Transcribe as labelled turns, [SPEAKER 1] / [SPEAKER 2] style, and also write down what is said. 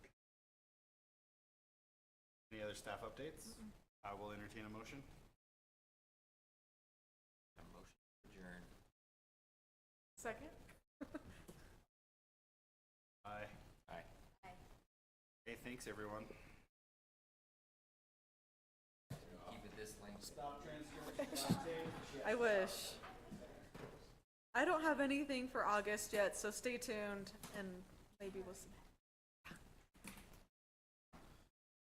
[SPEAKER 1] other staff updates, I will entertain a motion.
[SPEAKER 2] A motion to adjourn.
[SPEAKER 3] Second?
[SPEAKER 1] Aye.
[SPEAKER 2] Aye.
[SPEAKER 1] Hey, thanks, everyone.
[SPEAKER 2] Keep it this length.
[SPEAKER 3] I wish. I don't have anything for August yet, so stay tuned and maybe we'll see.